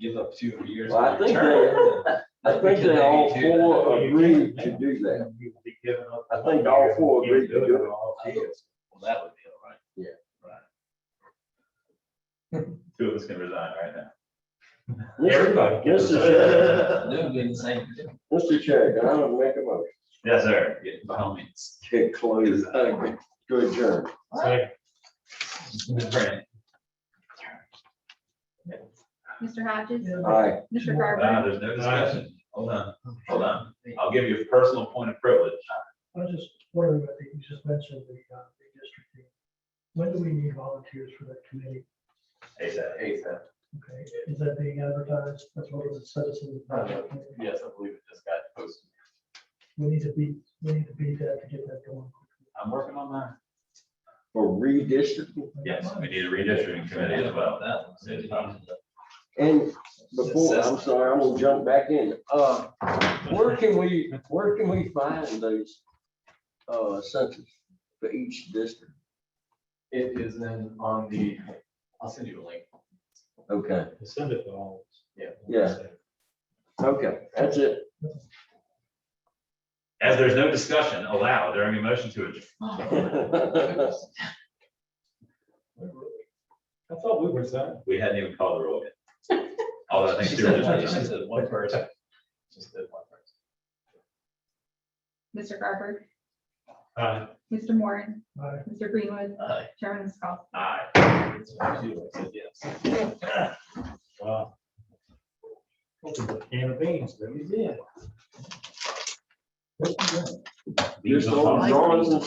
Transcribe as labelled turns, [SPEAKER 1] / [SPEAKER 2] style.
[SPEAKER 1] give up two years.
[SPEAKER 2] Well, I
[SPEAKER 1] of your
[SPEAKER 2] think
[SPEAKER 1] term.
[SPEAKER 2] I think they all
[SPEAKER 1] Because they do.
[SPEAKER 2] four agreed to do that.
[SPEAKER 3] You would be giving up.
[SPEAKER 2] I think all four agreed to do it.
[SPEAKER 3] All four.
[SPEAKER 1] Well, that would be all right.
[SPEAKER 2] Yeah.
[SPEAKER 1] Right.
[SPEAKER 4] Two of us can resign right now.
[SPEAKER 2] Mr.
[SPEAKER 3] Everybody.
[SPEAKER 2] Mr. Chair,
[SPEAKER 1] That would be the same. thing.
[SPEAKER 2] Mr. Chair, can I make a motion?
[SPEAKER 4] Yes, sir.
[SPEAKER 1] Yeah, By all means.
[SPEAKER 2] Get closed, uh, go adjourn.
[SPEAKER 3] Second.
[SPEAKER 1] Ms. Brandt,
[SPEAKER 5] Mr. Hodges,
[SPEAKER 2] Aye.
[SPEAKER 5] Mr.
[SPEAKER 4] Now,
[SPEAKER 5] Garber,
[SPEAKER 4] Uh, there's no discussion. Hold on, hold on. I'll give you a personal point of privilege.
[SPEAKER 6] I was just wondering, about the you just mentioned the, uh, redistricting. When do we need volunteers for that committee?
[SPEAKER 4] ASAP. ASAP.
[SPEAKER 6] Okay, is that being advertised? That's what was a citizen.
[SPEAKER 4] Yes, I believe it just got posted.
[SPEAKER 6] We need to be, we need to be there to get that going.
[SPEAKER 4] I'm working on that.
[SPEAKER 2] For redistricting.
[SPEAKER 4] Yes, we need a redistricting committee as well.
[SPEAKER 1] that was it.
[SPEAKER 2] And before, I'm sorry, I'm gonna jump back in. Uh, where can we, where can we find those, uh, census for each district?
[SPEAKER 1] It is in on the, I'll send you a link.
[SPEAKER 2] Okay,
[SPEAKER 3] Send it to all.
[SPEAKER 1] Yeah.
[SPEAKER 2] Yeah. okay, that's it.
[SPEAKER 4] As there's no discussion allowed during a motion to adjourn.
[SPEAKER 3] I thought we were set.
[SPEAKER 4] We hadn't even called the roll yet. Although I
[SPEAKER 1] She
[SPEAKER 4] think.
[SPEAKER 1] said one- she
[SPEAKER 4] there was-
[SPEAKER 1] said one person. She said one person.
[SPEAKER 5] Mr. Garber,
[SPEAKER 3] Aye.
[SPEAKER 5] Mr. Moran,
[SPEAKER 6] Aye.
[SPEAKER 5] Mr. Greenwood,
[SPEAKER 1] Aye.
[SPEAKER 5] Chairman Scott.
[SPEAKER 4] Aye.
[SPEAKER 1] She said yes.
[SPEAKER 3] Wow. Opened a Can of beans, didn't we?
[SPEAKER 2] Just on drawings and